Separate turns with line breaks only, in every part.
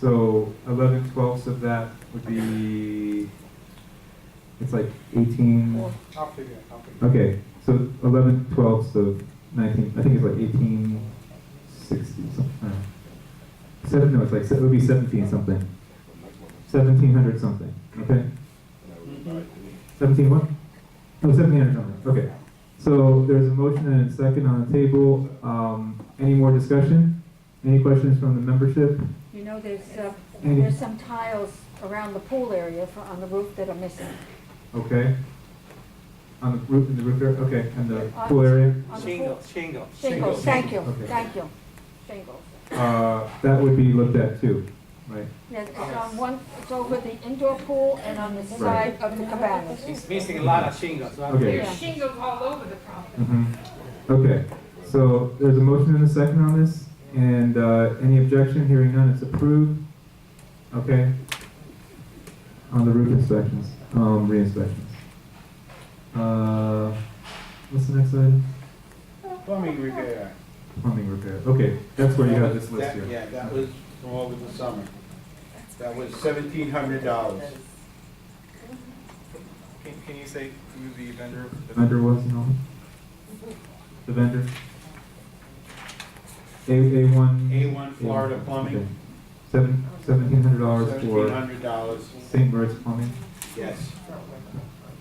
So eleven twelfths of that would be, it's like eighteen,
Well, I'll figure it, I'll figure it.
okay, so eleven twelfths of nineteen, I think it's like eighteen sixty something. Seven, no, it's like, se- it would be seventeen something, seventeen hundred something, okay?
Mm-hmm.
Seventeen what? Oh, seventeen hundred something, okay. So there's a motion and a second on the table, um, any more discussion? Any questions from the membership?
You know, there's, uh,
Mhm.
there's some tiles around the pool area for, on the roof that are missing.
Okay. On the roof, in the roof area, okay, and the
Uh,
pool area,
on the pool-
Shingles, shingles.
Shingles, thank you,
Okay.
thank you, shingles.
uh, that would be looked at too, right?
Yeah, it's on one, it's over the indoor pool and on the side of the cabanas.
It's missing a lot of shingles, right
Okay.
There's
Yeah.
there.
shingles all over the property.
Mhm. Okay, so there's a motion and a second on this, and, uh, any objection, hearing none, it's approved. Okay. On the roof inspections, um, re-inspections. Uh, what's the next item?
Plumbing repair.
Plumbing repair, okay, that's where you have this list
That-
here.
Yeah, that was from over the summer. That was seventeen hundred dollars.
Can, can you say who the vendor?
The vendor was, you know? The vendor? A, A one?
A1 Florida Plumbing.
Okay. Seven, seventeen hundred dollars
Seventeen
for
hundred dollars,
St. Bert's Plumbing?
yes.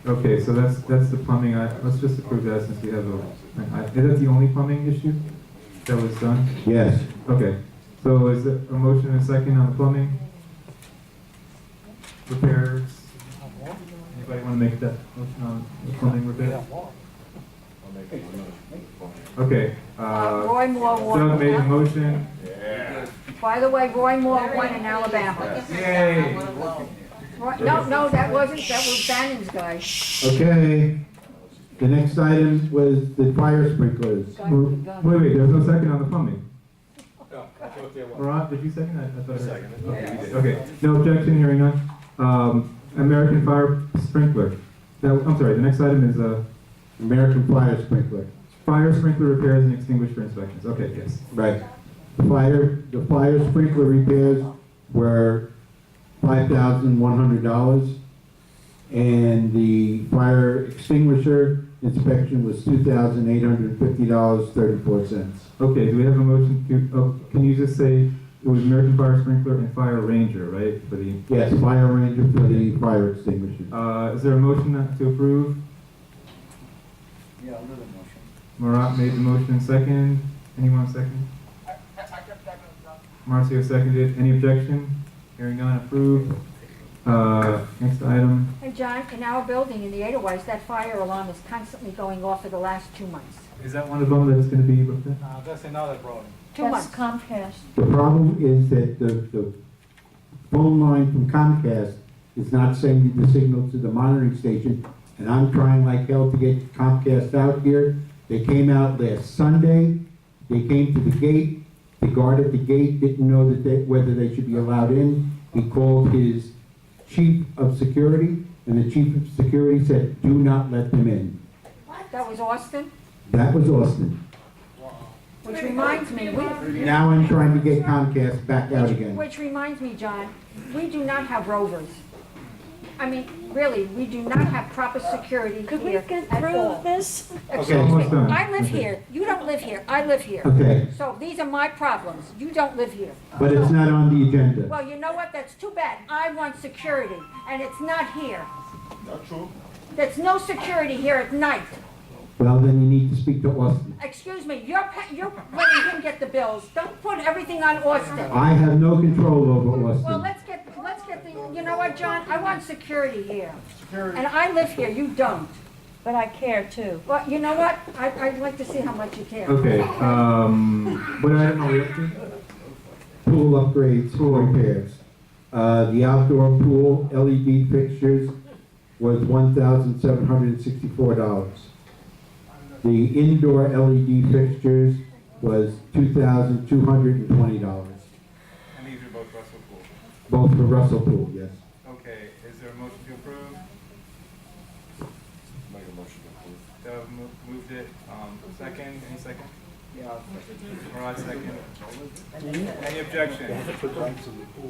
Okay, so that's, that's the plumbing, I, let's just approve that since we have a, an I- is that the only plumbing issue that was done?
Yes.
Okay, so is it a motion and a second on the plumbing? Repairs? Anybody wanna make that motion on the plumbing repair? Okay,
Uh,
uh,
Roy Moore won.
Doug made a motion,
Yeah.
By the way, Roy Moore won in Alabama.
Yay!
Roy- No, no, that wasn't, that was Bannon's guy.
Okay, the next item was the fire sprinklers.
Wait, wait, there's no second on the plumbing.
No, that's what they want.
Rob, did you second that? I thought I heard.
Seconded.
Okay, you did. Okay, no objection, hearing none. Um, American Fire Sprinkler. That, I'm sorry, the next item is, uh,
American Fire Sprinkler.
fire sprinkler repairs and extinguisher inspections. Okay, yes.
Right. Fire, the fire sprinkler repairs were five thousand one hundred dollars. And the fire extinguisher inspection was two thousand eight hundred fifty dollars thirty-four cents.
Okay, do we have a motion to, oh, can you just say it was American Fire Sprinkler and Fire Ranger, right, for the,
Yes, fire ranger for the fire extinguisher.
uh, is there a motion to approve?
Yeah, another motion.
Marat made the motion second. Anyone second? Marcio seconded. Any objection? Hearing none, approved. Uh, next item.
And John, in our building in the Edelweiss, that fire alarm is constantly going off for the last two months.
Is that one of them that's gonna be looked at?
Uh, that's another problem.
Two months. Comcast.
The problem is that the, the phone line from Comcast is not sending the signal to the monitoring station, and I'm trying like hell to get Comcast out here. They came out last Sunday, they came to the gate, the guard at the gate didn't know that they, whether they should be allowed in. He called his chief of security, and the chief of security said, do not let them in.
That was Austin,
That was Austin.
which reminds me, we,
Now I'm trying to get Comcast back out again.
Which reminds me, John, we do not have rovers. I mean, really, we do not have proper security
Could we
here
get
at
through
all.
this?
Okay.
Almost done.
I live here, you don't live here, I live here.
Okay,
So these are my problems, you don't live here.
but it's not on the agenda.
Well, you know what, that's too bad, I want security, and it's not here.
Not true.
There's no security here at night.
Well, then you need to speak to Austin.
Excuse me, you're, pa- you're letting him get the bills, don't put everything on Austin.
I have no control over
Well,
Austin.
let's get, let's get the, you know what, John, I want security here. And I live here, you don't.
But I care too.
Well, you know what, I, I'd like to see how much you care.
Okay, um, what item are we up to?
Pool upgrades, pool repairs. Uh, the outdoor pool LED fixtures was one thousand seven hundred and sixty-four dollars. The indoor LED fixtures was two thousand two hundred and twenty dollars.
And these are both Russell Pool.
Both for Russell Pool, yes.
Okay, is there a motion to approve?
Make a motion to
Doug mo- moved it, um, second, any second?
approve.
Marat second. Any objection?
Yeah.